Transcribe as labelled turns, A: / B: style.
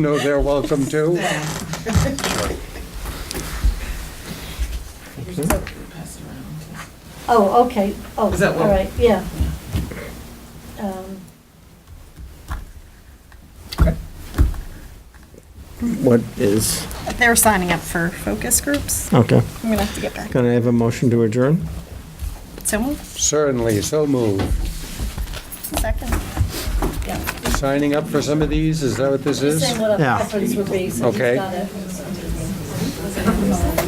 A: know they're welcome too.
B: Oh, okay, oh,
C: Is that
B: all
C: one?
B: right, yeah. Um,
D: What is,
E: They're signing up for focus groups.
D: okay.
E: I'm gonna have to get back.
D: Can I have a motion to adjourn?
E: Someone,
A: Certainly, so moved.
E: second.
A: Signing up for some of these, is that what this is?
B: Saying what our
D: Yeah.
B: preference would be, so he's
A: Okay.
B: got it.